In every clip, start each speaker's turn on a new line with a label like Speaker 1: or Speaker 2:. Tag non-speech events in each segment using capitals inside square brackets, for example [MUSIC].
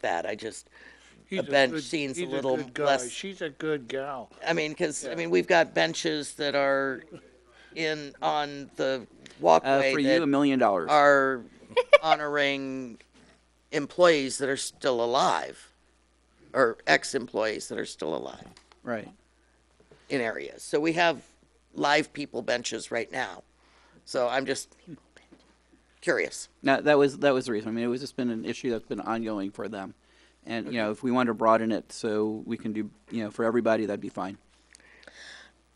Speaker 1: that. I just,
Speaker 2: He's
Speaker 1: bench
Speaker 2: good-
Speaker 1: scene's a
Speaker 2: he's
Speaker 1: little
Speaker 2: good guy.
Speaker 1: less-
Speaker 2: She's a good gal.
Speaker 1: I mean, because, I mean, we've got benches that are in, on the
Speaker 3: Uh,
Speaker 1: walkway
Speaker 3: for you, a
Speaker 1: that
Speaker 3: million dollars.
Speaker 1: are honoring employees that are still alive, or ex-employees that are still alive
Speaker 3: Right.
Speaker 1: in areas. So we have live people benches right now. So I'm just curious.
Speaker 3: No, that was that was the reason. I mean, it was just been an issue that's been ongoing for them, and you know, if we wanted to broaden it so we can do you know for everybody, that'd be fine.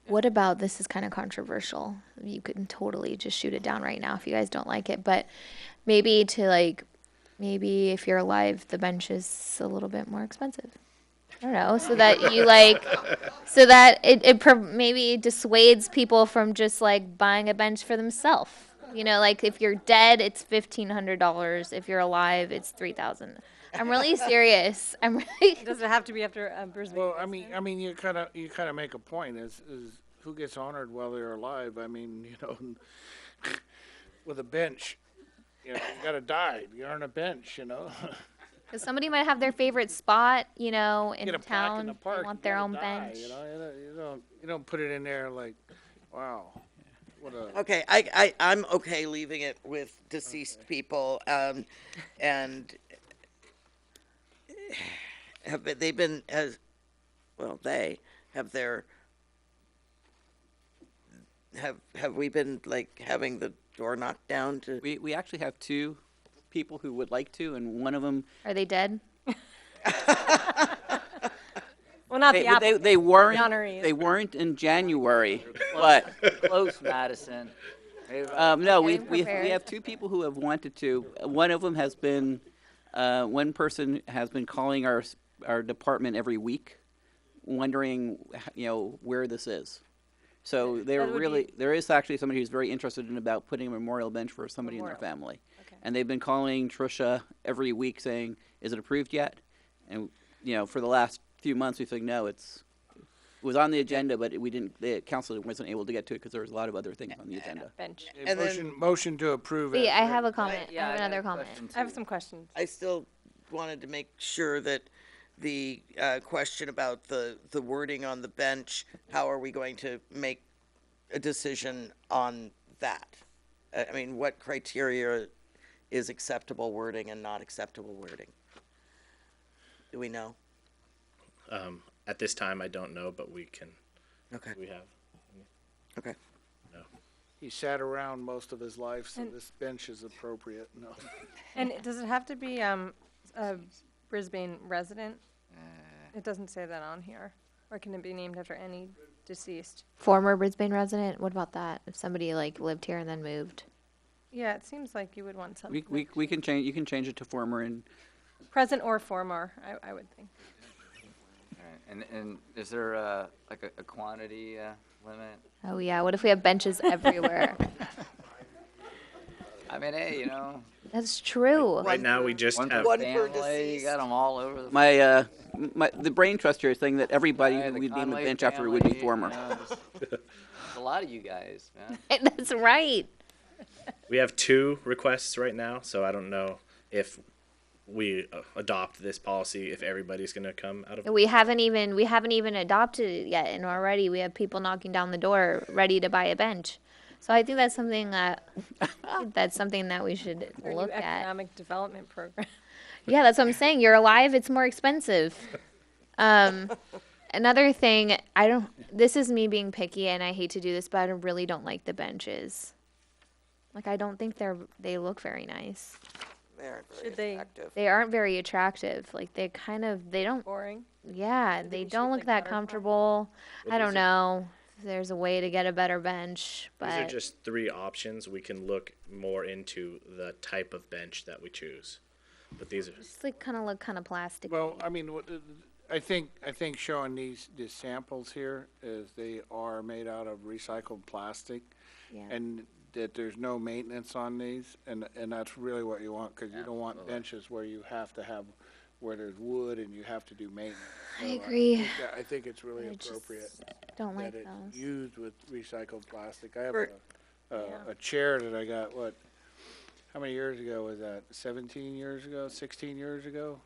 Speaker 4: What about this is kind of controversial. You can totally just shoot it down right now if you guys don't like it, but maybe to like maybe if you're alive the bench is a little bit more expensive. I don't know, so that you like so that it it pro- maybe dissuades people from just like buying a bench for themselves. You know, like if you're dead it's $1500, if you're alive it's 3000. I'm really serious. I'm really
Speaker 5: Does it have to be after um, a Brisbane?
Speaker 2: Well, I mean, I mean, you kind of, you kind of make a point. Is is who gets honored while they're alive? I mean, [LAUGHS] you know, with a bench, you know, you gotta die. You earn a bench, you know. [LAUGHS]
Speaker 4: Because somebody might have their favorite spot, you know, in
Speaker 2: Get a plaque
Speaker 4: town.
Speaker 2: in the
Speaker 4: They
Speaker 2: park. you
Speaker 4: want their
Speaker 2: gotta
Speaker 4: own
Speaker 2: die,
Speaker 4: bench.
Speaker 2: You know, you don't, you don't, you don't put it in there like, wow, what a.
Speaker 1: Okay, I, I, I'm okay leaving it with deceased people, um, and have, been- they've been, as, well, they have their, have, have we been like having the door knocked down to?
Speaker 3: We we actually have two people who would like to, and one of them
Speaker 4: Are they dead?
Speaker 5: Well, not
Speaker 3: they
Speaker 5: the apple.
Speaker 3: they, they weren't
Speaker 5: honorees.
Speaker 3: they weren't in January, but
Speaker 6: close Madison. They-
Speaker 3: um, no,
Speaker 4: Okay,
Speaker 3: we we we
Speaker 4: prepared.
Speaker 3: have two people who have wanted to. One of them has been uh, one person has been calling our s- our department every week, wondering you know where this is. So they're
Speaker 5: would be-
Speaker 3: really there is actually somebody who's very interested in about putting a memorial bench for somebody in their
Speaker 5: Memorial.
Speaker 3: family. And they've been calling Trisha every week saying, "Is it approved yet?" And you know, for the last few months, we've said, "No, it's." It was on the agenda, but we didn't. The council wasn't able to get to it because there was a lot of other things on the agenda.
Speaker 5: bench.
Speaker 2: Okay,
Speaker 1: And then-
Speaker 2: motion, motion to approve. as
Speaker 4: Wait, I
Speaker 2: written.
Speaker 4: have a comment. I
Speaker 6: Yeah,
Speaker 4: have
Speaker 6: got
Speaker 4: another
Speaker 6: a
Speaker 4: comment.
Speaker 6: question,
Speaker 5: I have
Speaker 6: too.
Speaker 5: some questions.
Speaker 1: I still wanted to make sure that the uh, question about the, the wording on the bench, how are we going to make a decision on that? I I mean, what criteria is acceptable wording and not acceptable wording? Do we know?
Speaker 7: At this time, I don't know, but we can,
Speaker 1: Okay,
Speaker 7: we have.
Speaker 1: okay.
Speaker 2: He sat around most of his life, so this bench is appropriate. No,
Speaker 5: And it- does it have to be um, a Brisbane resident? It doesn't say that on here. Or can it be named after any deceased?
Speaker 4: Former Brisbane resident. What about that? If somebody like lived here and then moved.
Speaker 5: Yeah, it seems like you would want
Speaker 3: We,
Speaker 5: something.
Speaker 3: we, we can change. You can change it to former and
Speaker 5: Present or former, I, I would think.
Speaker 6: Alright, And, and is there uh like a, a quantity uh, limit?
Speaker 4: Oh yeah. What if we have
Speaker 6: [LAUGHS]
Speaker 4: benches everywhere?
Speaker 6: I mean, hey, you know,
Speaker 4: That's true.
Speaker 1: One
Speaker 7: Right now, we just
Speaker 6: one
Speaker 7: have,
Speaker 6: per
Speaker 1: One per
Speaker 6: family, you
Speaker 1: deceased.
Speaker 6: got them all over the.
Speaker 3: my uh, my the brain trust here is saying that everybody
Speaker 6: Hey,
Speaker 3: who
Speaker 6: the
Speaker 3: we'd name a
Speaker 6: Conway
Speaker 3: bench after would be
Speaker 6: family, uh, you
Speaker 3: former.
Speaker 6: know, just-
Speaker 3: [LAUGHS]
Speaker 6: there's A lot of you guys, man.
Speaker 4: [LAUGHS] That's right.
Speaker 7: we have two requests right now, so I don't know if we uh, adopt this policy, if everybody's gonna come out of.
Speaker 4: We haven't even we haven't even adopted it yet, and already we have people knocking down the door ready to buy a bench. So I think that's something
Speaker 6: [LAUGHS]
Speaker 4: that that's something that we should
Speaker 5: Or new
Speaker 4: look at.
Speaker 5: Economic Development Program. [LAUGHS]
Speaker 4: Yeah, that's what I'm saying. You're alive, it's more expensive. Um, another thing, I don't, this is me being picky and I hate to do this, but I don't- really don't like the benches. Like, I don't think they're, they look very nice.
Speaker 1: They're very
Speaker 5: Should they-
Speaker 1: attractive.
Speaker 4: They aren't very attractive. Like, they kind of, they don't,
Speaker 5: Boring.
Speaker 4: yeah, they
Speaker 5: we should
Speaker 4: don't look
Speaker 5: think
Speaker 4: that
Speaker 5: better about it.
Speaker 4: comfortable. I
Speaker 7: these
Speaker 4: don't
Speaker 7: are-
Speaker 4: know. if There's a way to get a better bench,
Speaker 7: These are
Speaker 4: but
Speaker 7: just three options. We can look more into the type of bench that we choose. But these are,
Speaker 4: just like kind of look kind of plastic.
Speaker 2: well, I mean, what, uh, I think I think showing these the samples here is they are made out of recycled plastic,
Speaker 4: Yeah.
Speaker 2: and that there's no maintenance on these, and and that's really what you want because you don't want benches where you have to have where there's wood and you have to do maintenance.
Speaker 4: I
Speaker 2: So
Speaker 4: agree.
Speaker 2: think that- I think it's really
Speaker 4: I just
Speaker 2: appropriate
Speaker 4: don't like
Speaker 2: that it's
Speaker 4: those.
Speaker 2: used with recycled plastic. I have
Speaker 1: For-
Speaker 2: a, a, a chair that I got, what, how many years ago was that? Seventeen years ago, sixteen years ago?